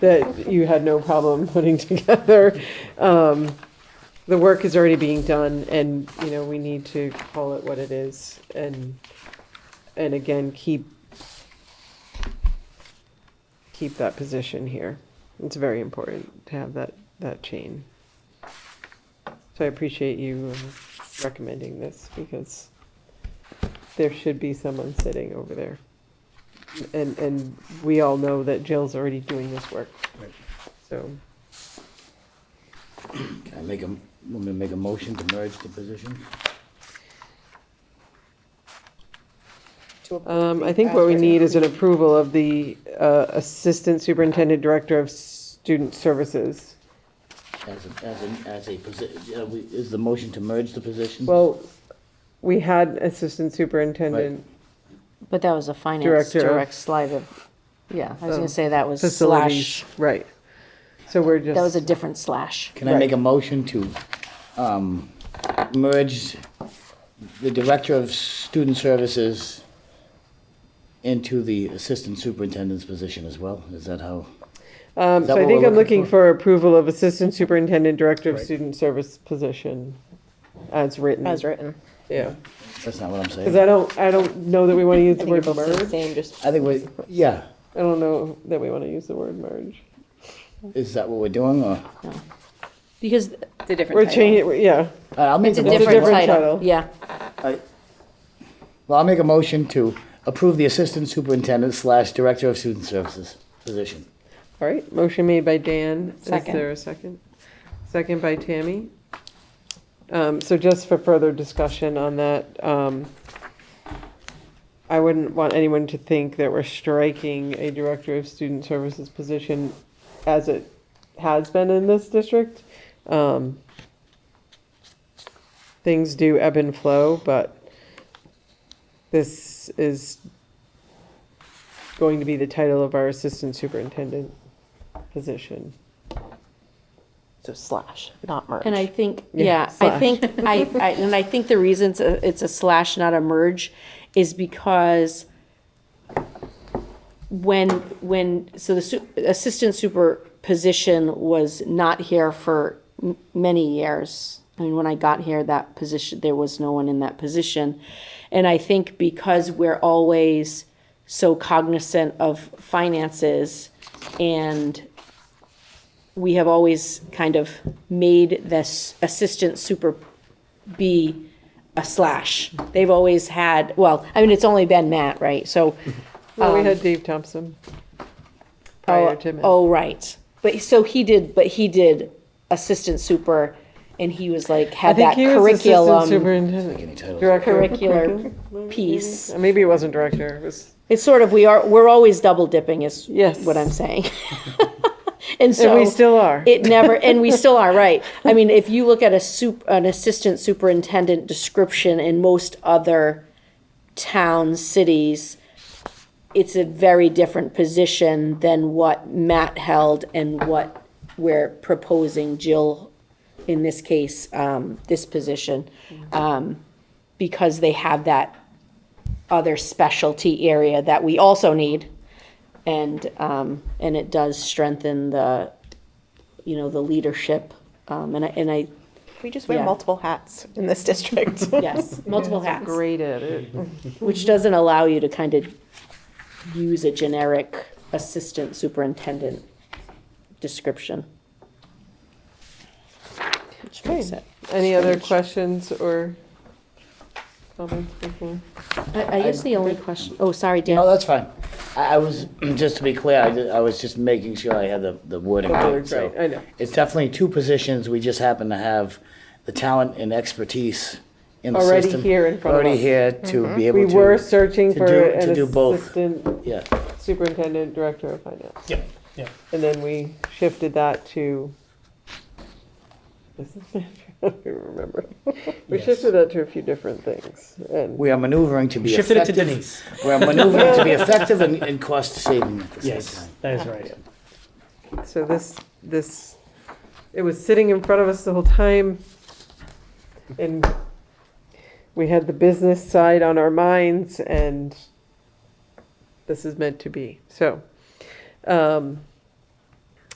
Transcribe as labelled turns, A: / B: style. A: that you had no problem putting together. Um, The work is already being done and, you know, we need to call it what it is and, and again, keep, keep that position here. It's very important to have that, that chain. So I appreciate you uh, recommending this because there should be someone sitting over there. And, and we all know that Jill's already doing this work.
B: Right.
A: So,
B: Can I make a, want me to make a motion to merge the positions?
C: to approve
A: um,
C: the
A: I think what we
C: as
A: need is an
C: written.
A: approval of the, uh, Assistant Superintendent Director of Student Services.
B: As a, as a, as a position, we is the motion to merge the positions?
A: Well, we had Assistant Superintendent,
D: But that was a finance
A: Director of-
D: direct slide of, yeah, I was gonna say that was
A: facilities,
D: slash,
A: right. So we're
D: that was
A: just,
D: a different slash.
B: Can I make a motion to, um, merge the Director of Student Services into the Assistant Superintendent's position as well? Is that how?
A: um,
B: is that
A: so I
B: what
A: think
B: we're
A: I'm
B: looking
A: looking for approval of Assistant Superintendent Director of Student Service position as written.
C: As written.
A: Yeah,
B: That's not what I'm saying.
A: because I don't, I don't know that we want to use the word
C: Both the
A: merge.
C: Same, just,
B: I think we, yeah,
A: I don't know that we want to use the word merge.
B: is that what we're doing, or?
D: Because
C: it's a different
A: We're
C: title.
A: changing, it- yeah,
B: All right, I'll make
D: it's a
B: a motion.
D: different
A: different
D: title,
A: title.
D: yeah.
B: All right. Well, I'll make a motion to approve the Assistant Superintendent slash Director of Student Services position.
A: all right, motion made by Dan, is
D: Second.
A: there a second? Second by Tammy. Um, so just for further discussion on that, um, I wouldn't want anyone to think that we're striking a Director of Student Services position as it has been in this district. Um, things do ebb and flow, but this is going to be the title of our Assistant Superintendent position.
C: So slash, not merge.
D: And I think,
A: Yeah,
D: yeah, I
A: slash.
D: think, I, I, and I think the reasons a- it's a slash, not a merge, is because when, when, so the su- assistant super position was not here for m- many years. I mean, when I got here, that position, there was no one in that position. And I think because we're always so cognizant of finances and we have always kind of made this assistant super be a slash. They've always had, well, I mean, it's only been Matt, right? So,
A: Well, we
D: Um,
A: had Dave Thompson prior
D: oh,
A: to him.
D: oh, right. But so he did, but he did assistant super and he was like,
A: I
D: had
A: think
D: that
A: he was assistant
D: curriculum,
A: superintendent,
B: Any titles?
A: director.
D: curricular piece.
A: Uh, Maybe it wasn't director, it was,
D: It's sort of, we are, we're always double dipping is
A: Yes.
D: what I'm saying. And so.
A: and we still are.
D: It never, and we still are, right. I mean, if you look at a sup, an assistant superintendent description in most other towns, cities, it's a very different position than what Matt held and what we're proposing Jill, in this case, um, this position. Um, because they have that other specialty area that we also need. And, um, and it does strengthen the, you know, the leadership, um, and I, and I,
C: We just wear
D: Yeah.
C: multiple hats in this district.
D: yes, multiple hats,
A: Great at it.
D: which doesn't allow you to kind of use a generic assistant superintendent description. Which makes it.
A: Any other questions or comments before?
D: I, I guess the only question, oh, sorry,
B: No,
D: Dan,
B: that's fine. I, I was, just to be clear, I, did- I was just making sure I had the, the wording
A: The
B: right,
A: words
B: so.
A: right, Oh, I know.
B: It's definitely two positions, we just happen to have the talent and expertise in the
A: Already
B: system.
A: here in front of us. Mm-hmm.
B: Already here to be able
A: We
B: to.
A: were searching
B: to
A: for
B: do-
A: an
B: To do both,
A: assistant
B: yeah.
A: superintendent, director of finance.
E: Yeah, yeah.
A: And then we shifted that to business manager, I don't remember. We
E: Yes.
A: shifted that to a few different things and,
B: We are maneuvering to be
E: Shifted it to
B: effective.
E: Denise.
B: We're maneuvering to be effective and, and cost saving at the same
E: Yes,
B: time.
E: that is right.
A: so this, this, it was sitting in front of us the whole time. And we had the business side on our minds and this is meant to be, so. um,